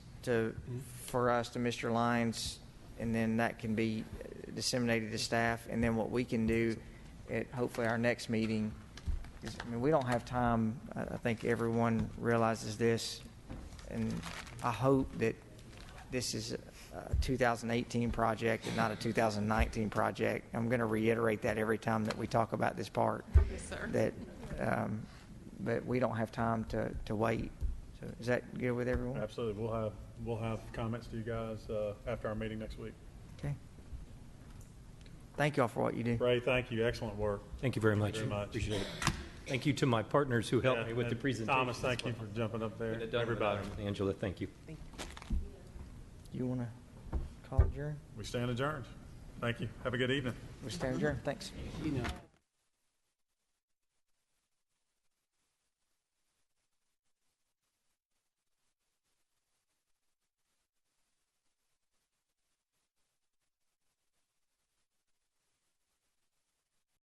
to, for us to Mr. Lyons, and then that can be disseminated to staff, and then what we can do at hopefully our next meeting is, I mean, we don't have time, I, I think everyone realizes this, and I hope that this is a 2018 project and not a 2019 project. I'm going to reiterate that every time that we talk about this part. Yes, sir. That, um, but we don't have time to, to wait. So is that good with everyone? Absolutely. We'll have, we'll have comments to you guys uh, after our meeting next week. Okay. Thank y'all for what you do. Ray, thank you. Excellent work. Thank you very much. very much. Appreciate it. Thank you to my partners who helped me with the And presentation. Thomas, thank you for jumping up there. Everybody. Angela, thank you. You want to call adjourn? We stand adjourned. Thank you. Have a good evening. We stand adjourned. Thanks.